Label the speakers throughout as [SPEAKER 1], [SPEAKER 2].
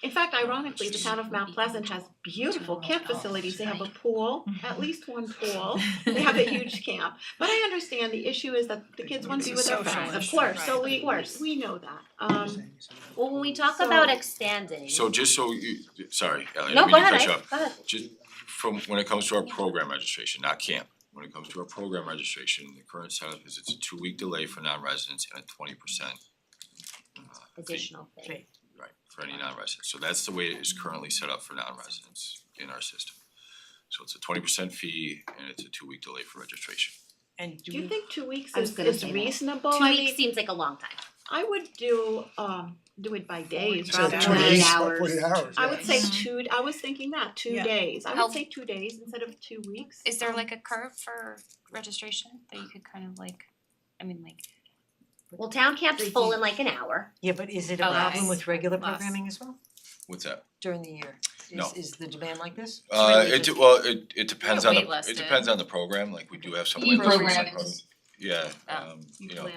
[SPEAKER 1] In fact, ironically, the town of Mount Pleasant has beautiful camp
[SPEAKER 2] Somewhere else,
[SPEAKER 1] facilities. They have a
[SPEAKER 2] right.
[SPEAKER 1] pool,
[SPEAKER 3] Mm-hmm.
[SPEAKER 1] at least one pool. They have a huge camp. But I understand the issue is that the kids want to be with
[SPEAKER 2] It's a
[SPEAKER 1] their
[SPEAKER 2] social
[SPEAKER 1] friends, of
[SPEAKER 2] issue,
[SPEAKER 1] course, so
[SPEAKER 2] right,
[SPEAKER 1] we,
[SPEAKER 2] of course.
[SPEAKER 1] we know that. Um,
[SPEAKER 3] Well, when we talk
[SPEAKER 1] So-
[SPEAKER 3] about expanding.
[SPEAKER 4] So just so you, sorry, Ellie, I
[SPEAKER 3] No,
[SPEAKER 4] didn't
[SPEAKER 3] go
[SPEAKER 4] mean to
[SPEAKER 3] ahead,
[SPEAKER 4] cut you
[SPEAKER 3] I,
[SPEAKER 4] off.
[SPEAKER 3] go ahead.
[SPEAKER 4] Just from, when it comes to our program registration, not camp, when it comes to our program registration, the current setup is it's a two-week delay for non-residents and a twenty percent
[SPEAKER 3] Additional thing.
[SPEAKER 4] Right, for any non-residents, so that's the way it is currently set up for non-residents in our system. So it's a twenty percent fee and it's a two-week delay for registration.
[SPEAKER 2] And
[SPEAKER 1] do you
[SPEAKER 2] we-
[SPEAKER 1] think two weeks
[SPEAKER 3] I was
[SPEAKER 1] is,
[SPEAKER 3] gonna
[SPEAKER 1] is
[SPEAKER 3] say that.
[SPEAKER 1] reasonable?
[SPEAKER 3] Two
[SPEAKER 1] I
[SPEAKER 3] weeks
[SPEAKER 1] mean,
[SPEAKER 3] seems like a long time.
[SPEAKER 1] I would do, um, do it by days
[SPEAKER 2] So
[SPEAKER 1] rather
[SPEAKER 2] two
[SPEAKER 1] than hours.
[SPEAKER 2] days,
[SPEAKER 5] Forty hours.
[SPEAKER 1] I would say
[SPEAKER 6] Mhm.
[SPEAKER 3] Mm-hmm.
[SPEAKER 1] two, I was thinking that, two
[SPEAKER 2] Yeah.
[SPEAKER 1] days. I
[SPEAKER 6] How-
[SPEAKER 1] would say two days instead of two weeks.
[SPEAKER 6] Is there
[SPEAKER 1] Um,
[SPEAKER 6] like a curve for registration that you could kind of like, I mean, like,
[SPEAKER 3] Well, town camp's full in like an hour.
[SPEAKER 2] yeah, but is it a
[SPEAKER 6] Oh,
[SPEAKER 2] problem
[SPEAKER 6] nice.
[SPEAKER 2] with regular
[SPEAKER 6] Nice.
[SPEAKER 2] programming as well
[SPEAKER 4] What's that?
[SPEAKER 2] during the year?
[SPEAKER 4] No.
[SPEAKER 2] Is is the demand like this? It's
[SPEAKER 4] Uh,
[SPEAKER 2] really
[SPEAKER 4] it,
[SPEAKER 2] just-
[SPEAKER 4] well, it, it depends on the,
[SPEAKER 6] waitlisted.
[SPEAKER 4] it depends on the program, like we do have some
[SPEAKER 6] You
[SPEAKER 4] waivers for
[SPEAKER 6] program
[SPEAKER 4] some
[SPEAKER 6] it.
[SPEAKER 4] programs. Yeah,
[SPEAKER 6] Oh,
[SPEAKER 4] um, you know,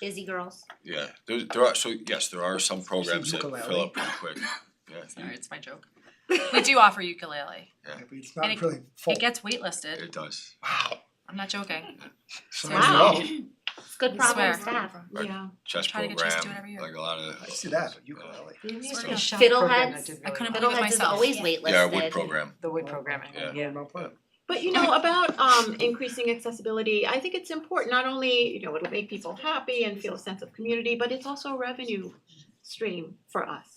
[SPEAKER 3] Busy girls.
[SPEAKER 4] yeah, there, there are, so yes, there are some programs that fill
[SPEAKER 5] ukulele.
[SPEAKER 4] up pretty quick, yeah.
[SPEAKER 6] sorry, it's my joke. We do offer ukulele.
[SPEAKER 5] It's
[SPEAKER 6] And
[SPEAKER 5] not
[SPEAKER 6] it-
[SPEAKER 5] really full.
[SPEAKER 6] It gets waitlisted.
[SPEAKER 4] It does.
[SPEAKER 5] Wow.
[SPEAKER 6] I'm not joking.
[SPEAKER 5] So
[SPEAKER 1] Wow.
[SPEAKER 5] no.
[SPEAKER 3] It's good
[SPEAKER 6] I
[SPEAKER 3] problems to
[SPEAKER 6] swear.
[SPEAKER 3] have.
[SPEAKER 4] Right.
[SPEAKER 1] Um, Yeah.
[SPEAKER 4] Chess
[SPEAKER 6] Try to get chess to do it
[SPEAKER 4] program,
[SPEAKER 6] every year.
[SPEAKER 4] like a lot of. uh,
[SPEAKER 5] I see that, but ukulele.
[SPEAKER 2] There used to be a
[SPEAKER 6] Fiddleheads.
[SPEAKER 2] shop program that
[SPEAKER 3] Fiddleheads.
[SPEAKER 2] did really
[SPEAKER 6] I couldn't
[SPEAKER 2] well.
[SPEAKER 6] believe
[SPEAKER 3] Fiddleheads is
[SPEAKER 6] myself.
[SPEAKER 3] always
[SPEAKER 6] Yeah.
[SPEAKER 3] waitlisted.
[SPEAKER 4] Yeah, wood program,
[SPEAKER 2] The wood programming,
[SPEAKER 4] Yeah.
[SPEAKER 2] yeah.
[SPEAKER 5] Well put.
[SPEAKER 1] But you know, about um increasing accessibility, I think it's important, not only, you know, it'll make people happy and feel a sense of community, but it's also a revenue stream for us.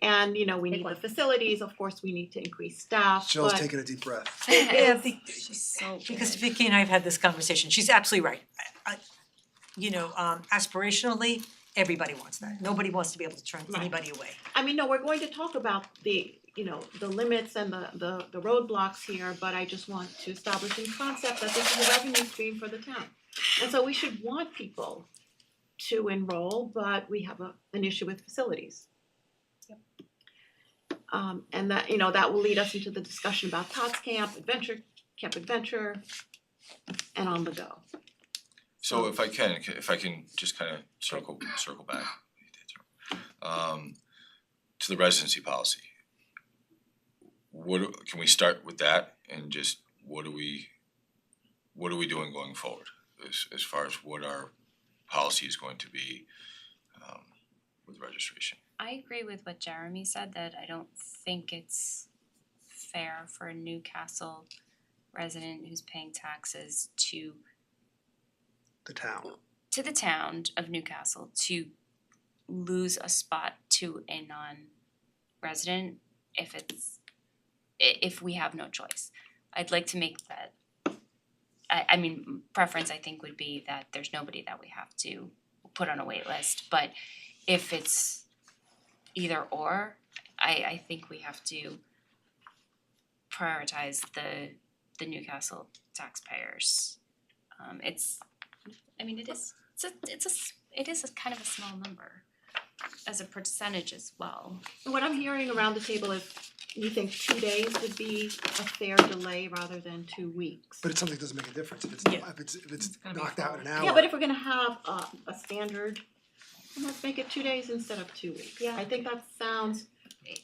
[SPEAKER 1] And, you know, we need the facilities, of course, we need to increase staff,
[SPEAKER 5] Jill's
[SPEAKER 1] but
[SPEAKER 5] taking a deep breath.
[SPEAKER 2] Yeah, the-
[SPEAKER 6] She's so
[SPEAKER 2] because
[SPEAKER 6] good.
[SPEAKER 2] Vicky and I have had this conversation, she's absolutely right. I I you know, um aspirationally, everybody wants that. Nobody wants to be able to turn
[SPEAKER 1] Right.
[SPEAKER 2] anybody away.
[SPEAKER 1] I mean, no, we're going to talk about the, you know, the limits and the the the roadblocks here, but I just want to establish in concept that this is a revenue stream for the town. And so we should want people to enroll, but we have a an issue with facilities. Um and that, you know, that will lead us into the discussion about Tots Camp, Adventure, Camp Adventure, and on the go.
[SPEAKER 5] Oh.
[SPEAKER 4] so if I can, if I can just kind of circle, circle back. Um, to the residency policy. What, do- can we start with that and just, what are we, what are we doing going forward? As, as far as what our policy is going to be, um, with registration?
[SPEAKER 6] I agree with what Jeremy said, that I don't think it's fair for a Newcastle resident who's paying taxes to
[SPEAKER 5] The town.
[SPEAKER 6] to the town of Newcastle to lose a spot to a non-resident if it's i- if we have no choice. I'd like to make that I I mean preference I think would be that there's nobody that we have to put on a wait list, but if it's either or, I I think we have to prioritize the the Newcastle taxpayers. Um it's I mean, it is, it's a, it's a, s- it is a kind of a small number as a percentage as well.
[SPEAKER 1] And What I'm hearing around the table is you think two days would be a fair delay rather than two weeks.
[SPEAKER 5] But it's something that doesn't make a difference. If it's,
[SPEAKER 2] Yeah.
[SPEAKER 5] if it's, if it's
[SPEAKER 6] gonna be
[SPEAKER 5] knocked out in an hour.
[SPEAKER 1] Yeah, but if we're gonna have a a standard, then let's make it two days instead of two weeks.
[SPEAKER 3] Yeah.
[SPEAKER 1] I think that sounds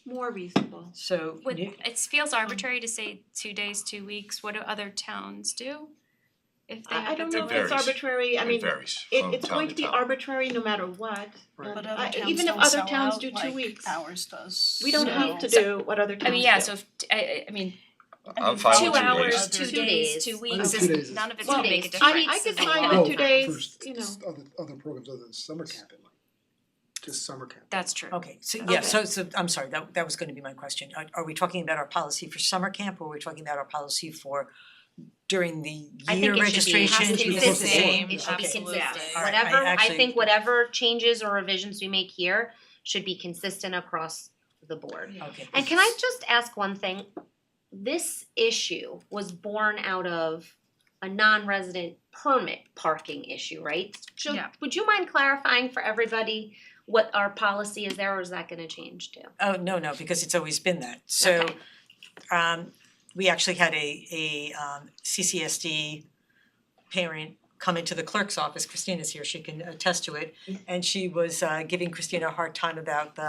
[SPEAKER 1] more reasonable.
[SPEAKER 2] So
[SPEAKER 6] Would,
[SPEAKER 2] New-
[SPEAKER 6] it feels arbitrary to say two days, two weeks, what do other towns do? If they
[SPEAKER 1] I I
[SPEAKER 6] have
[SPEAKER 1] don't
[SPEAKER 6] a
[SPEAKER 1] know if it's
[SPEAKER 4] varies.
[SPEAKER 1] arbitrary, I mean,
[SPEAKER 4] It varies
[SPEAKER 1] it
[SPEAKER 4] from
[SPEAKER 1] it's
[SPEAKER 4] town
[SPEAKER 1] going
[SPEAKER 4] to
[SPEAKER 1] to be
[SPEAKER 4] town.
[SPEAKER 1] arbitrary no matter what.
[SPEAKER 5] Right.
[SPEAKER 7] But
[SPEAKER 1] Uh,
[SPEAKER 7] other towns
[SPEAKER 1] even if
[SPEAKER 7] don't
[SPEAKER 1] other
[SPEAKER 7] sell
[SPEAKER 1] towns
[SPEAKER 7] out
[SPEAKER 1] do two
[SPEAKER 7] like
[SPEAKER 1] weeks.
[SPEAKER 7] ours does.
[SPEAKER 1] We don't
[SPEAKER 7] so-
[SPEAKER 1] have to
[SPEAKER 6] So-
[SPEAKER 1] do what other towns do.
[SPEAKER 6] I mean, yeah, so if, I- I, I mean,
[SPEAKER 4] I'm fine
[SPEAKER 6] two
[SPEAKER 4] with two days.
[SPEAKER 6] hours, two
[SPEAKER 7] Two
[SPEAKER 6] days,
[SPEAKER 3] days.
[SPEAKER 6] two
[SPEAKER 5] Under
[SPEAKER 6] weeks,
[SPEAKER 5] two
[SPEAKER 6] is-
[SPEAKER 5] days is-
[SPEAKER 6] none of it's
[SPEAKER 1] Well,
[SPEAKER 6] gonna make a
[SPEAKER 3] days.
[SPEAKER 6] difference.
[SPEAKER 1] I I could
[SPEAKER 3] It's a
[SPEAKER 1] find
[SPEAKER 3] long
[SPEAKER 1] with two
[SPEAKER 3] time.
[SPEAKER 1] days,
[SPEAKER 5] Oh, First,
[SPEAKER 1] you know.
[SPEAKER 5] s- other, other programs other than summer camp, it might. Just summer camp.
[SPEAKER 6] That's true.
[SPEAKER 2] Okay, so yeah,
[SPEAKER 1] Okay.
[SPEAKER 2] so so I'm sorry, that that was gonna be my question. Are are we talking about our policy for summer camp or are we talking about our policy for during the
[SPEAKER 3] I think
[SPEAKER 2] year
[SPEAKER 3] it should be, it has
[SPEAKER 2] registration?
[SPEAKER 3] to be
[SPEAKER 2] Because
[SPEAKER 3] consistent.
[SPEAKER 2] it's the same.
[SPEAKER 3] It should be
[SPEAKER 2] Okay.
[SPEAKER 3] consistent.
[SPEAKER 2] All right, I
[SPEAKER 3] Whatever, I
[SPEAKER 2] actually-
[SPEAKER 3] think whatever changes or revisions we make here should be consistent across the board.
[SPEAKER 2] Okay.
[SPEAKER 3] And can I just ask one thing? This issue was born out of a non-resident permit parking issue, right? So
[SPEAKER 6] Yeah.
[SPEAKER 3] would you mind clarifying for everybody what our policy is there or is that gonna change too?
[SPEAKER 2] Oh, no, no, because it's always been that. So
[SPEAKER 3] Okay.
[SPEAKER 2] um we actually had a a um CCSD parent come into the
[SPEAKER 3] Mm.
[SPEAKER 2] clerk's office, Christina's here, she can attest to it. And she was uh giving Christina a hard time about the